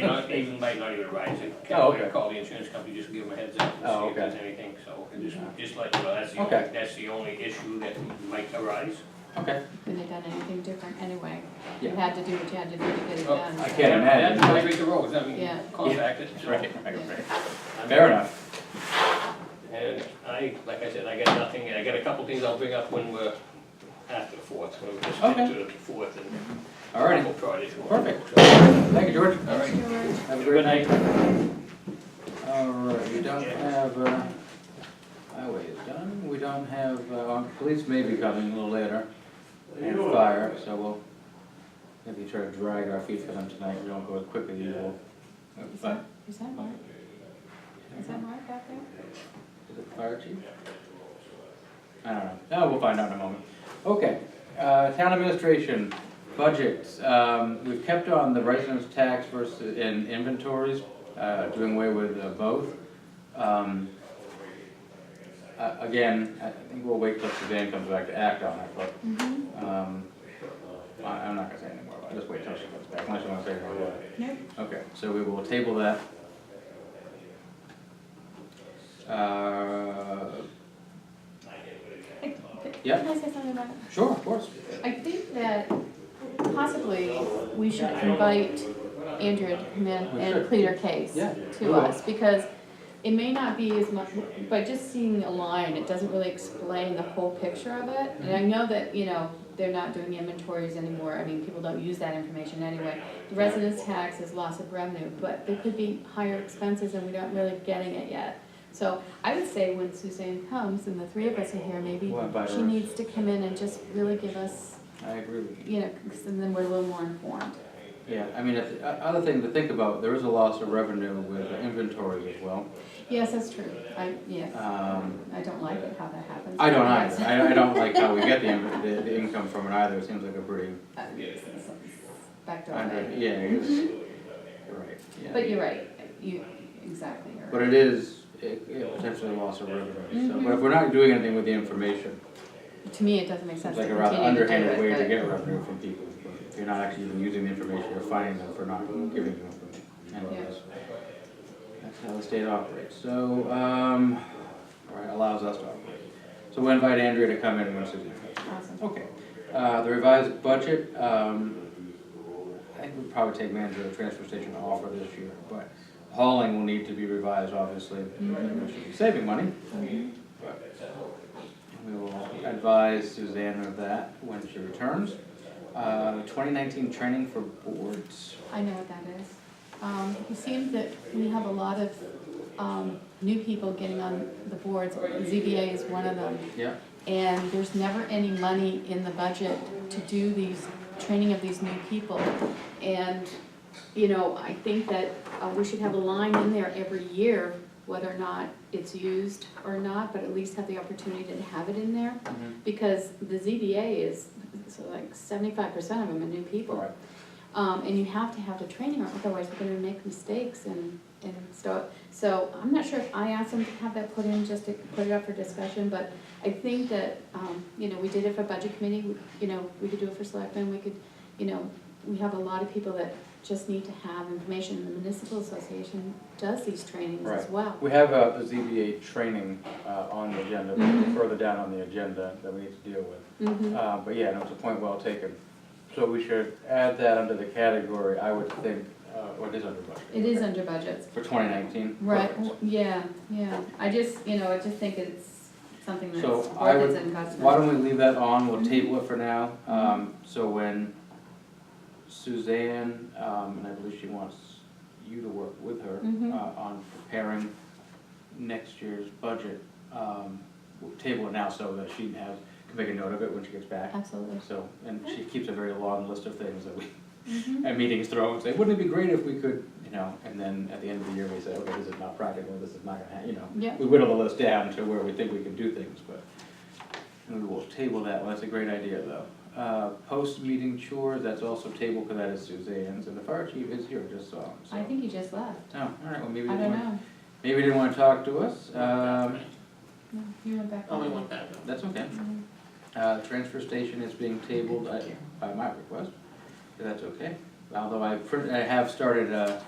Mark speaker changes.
Speaker 1: Not even, might not even rise,
Speaker 2: Oh,
Speaker 1: I
Speaker 2: okay.
Speaker 1: call the insurance company, just give them a heads up and
Speaker 2: Oh,
Speaker 1: see if
Speaker 2: okay.
Speaker 1: there's anything, so, and just, just let you know, that's the,
Speaker 2: Okay.
Speaker 1: only- that's the only issue that might arise.
Speaker 2: Okay.
Speaker 3: Couldn't have done anything different anyway. You
Speaker 2: Yeah.
Speaker 3: had to do what you had to do to get it
Speaker 1: Oh,
Speaker 3: done.
Speaker 2: I
Speaker 3: so-
Speaker 2: can't imagine.
Speaker 1: That's why I read the rules, I mean,
Speaker 3: Yeah.
Speaker 1: contact it, so.
Speaker 2: Right, right,
Speaker 3: Yeah.
Speaker 2: right.
Speaker 1: I'm-
Speaker 2: Fair enough.
Speaker 1: And I, like I said, I got nothing, I got a couple things I'll bring up when we're after the fourth, when we just get
Speaker 2: Okay.
Speaker 1: to the fourth and.
Speaker 2: All righty.
Speaker 1: couple projects.
Speaker 2: Perfect.
Speaker 1: So,
Speaker 2: Thank you, George.
Speaker 1: All right.
Speaker 2: Have a great night. All right, we don't have, uh, highway is done. We don't have, uh, our police may be coming a little later. And fire, so we'll maybe try to drag our feet for them tonight. We don't go as quick as usual.
Speaker 3: Is
Speaker 2: But-
Speaker 3: that, is that Mark? Is that Mark back there?
Speaker 2: Is it fire chief? I don't know. No, we'll find out in a moment. Okay, uh, town administration, budgets. Um, we've kept on the residence tax versus, in inventories, uh, doing away with uh, both. Um, uh, again, I think we'll wait till Suzanne comes back to act on it, but,
Speaker 3: Mm-hmm,
Speaker 2: um, I, I'm not gonna say anymore about it. Just wait till she comes back, unless you wanna say anything about it.
Speaker 3: nope,
Speaker 2: Okay, so we will table that. Uh,
Speaker 3: I-
Speaker 2: Yeah.
Speaker 3: Can I say something about it?
Speaker 2: sure, of course.
Speaker 3: I think that possibly we should invite Andrew to come in
Speaker 2: We
Speaker 3: and
Speaker 2: should.
Speaker 3: plead our case
Speaker 2: Yeah, we
Speaker 3: to
Speaker 2: will.
Speaker 3: us, because it may not be as much, by just seeing a line, it doesn't really explain the whole picture of it. And
Speaker 2: Mm-hmm.
Speaker 3: I know that, you know, they're not doing inventories anymore, I mean, people don't use that information anyway. The Residence tax is loss of revenue, but there could be higher expenses and we're not really getting it yet. So I would say when Suzanne comes and the three of us are here, maybe
Speaker 2: We'll invite
Speaker 3: she
Speaker 2: her.
Speaker 3: needs to come in and just really give us
Speaker 2: I agree with you.
Speaker 3: you know, 'cause then we're a little more informed.
Speaker 2: Yeah, I mean, if, o- other thing to think about, there is a loss of revenue with the inventory as well.
Speaker 3: Yes, that's true. I, yes,
Speaker 2: Um,
Speaker 3: I don't like it how that happens.
Speaker 2: I don't
Speaker 3: Yes.
Speaker 2: either, I, I don't like how we get the, in- the, the income from it either, it seems like a pretty,
Speaker 3: Uh, s- s- Backdoor
Speaker 2: under-
Speaker 3: way.
Speaker 2: yeah, it's, you're right, yeah.
Speaker 3: Mm-hmm. But you're right, you, exactly, you're
Speaker 2: But
Speaker 3: right.
Speaker 2: it is, it, it potentially loss of revenue,
Speaker 3: Mm-hmm.
Speaker 2: so, but if we're not doing anything with the information,
Speaker 3: To me, it doesn't make sense
Speaker 2: It's
Speaker 3: to
Speaker 2: like a
Speaker 3: continue
Speaker 2: rather
Speaker 3: to do
Speaker 2: underhanded way to
Speaker 3: it,
Speaker 2: get revenue from people, if you're not actually even using the information, you're fining them for not giving them. Anyways, that's how the state operates, so, um, or it allows us to operate. So we invite Andrea to come in once again.
Speaker 3: but, awesome.
Speaker 2: Okay, uh, the revised budget, um, I think we'd probably take manager of the transfer station off for this year, but hauling will need to be revised, obviously, we should be saving money. But We will advise Suzanne of that when she returns. Uh, twenty nineteen training for boards,
Speaker 3: I know what that is. Um, it seems that we have a lot of, um, new people getting on the boards, ZBA is one of them.
Speaker 2: yeah,
Speaker 3: and there's never any money in the budget to do these, training of these new people. And, you know, I think that uh, we should have a line in there every year, whether or not it's used or not, but at least have the opportunity to have it in there.
Speaker 2: Mhm.
Speaker 3: Because the ZBA is, so like seventy-five percent of them are new people.
Speaker 2: Right.
Speaker 3: Um, and you have to have the training, or otherwise we're gonna make mistakes and, and so, so I'm not sure if I asked them to have that put in, just to put it up for discussion, but I think that, um, you know, we did it for budget committee, we- you know, we could do it for selectmen, we could, you know, we have a lot of people that just need to have information, the municipal association does these trainings as
Speaker 2: Right.
Speaker 3: well.
Speaker 2: We have uh, the ZBA training uh, on the agenda, but further down on the agenda that we need to deal with.
Speaker 3: Mhm.
Speaker 2: Uh, But yeah, no, it's a point well taken. So we should add that under the category, I would think, uh, or it is under budget.
Speaker 3: It is under budgets,
Speaker 2: For twenty nineteen.
Speaker 3: Right, w- yeah, yeah, I just, you know, I just think it's something that's
Speaker 2: So I
Speaker 3: worth
Speaker 2: would-
Speaker 3: its investment.
Speaker 2: Why don't we leave that on, we'll table it for now, um, so when Suzanne, um, and I believe she wants you to work with her,
Speaker 3: Mhm.
Speaker 2: uh, on preparing next year's budget, um, we'll table it now so that she has, can make a note of it when she gets back.
Speaker 3: Absolutely.
Speaker 2: So, and she keeps a very long list of things that we,
Speaker 3: Mhm.
Speaker 2: at meetings throw and say, wouldn't it be great if we could, you know, and then at the end of the year, we say, okay, this is not practical, this is not gonna happen, you know.
Speaker 3: Yeah.
Speaker 2: We whittle the list down to where we think we can do things, but, and we will table that, well, that's a great idea, though. Uh, post-meeting chores, that's also table, because that is Suzanne's, and the fire chief is here, just saw him, so.
Speaker 3: I think he just left,
Speaker 2: Oh, all right, well, maybe
Speaker 3: I
Speaker 2: he didn't
Speaker 3: don't
Speaker 2: want,
Speaker 3: know,
Speaker 2: maybe he didn't wanna talk to us, um,
Speaker 3: No, you went back.
Speaker 1: Only
Speaker 3: on.
Speaker 1: one time.
Speaker 2: that's okay.
Speaker 3: Mhm.
Speaker 2: Uh, transfer station is being tabled I- by my request, if that's okay. although I, print- I have started, uh,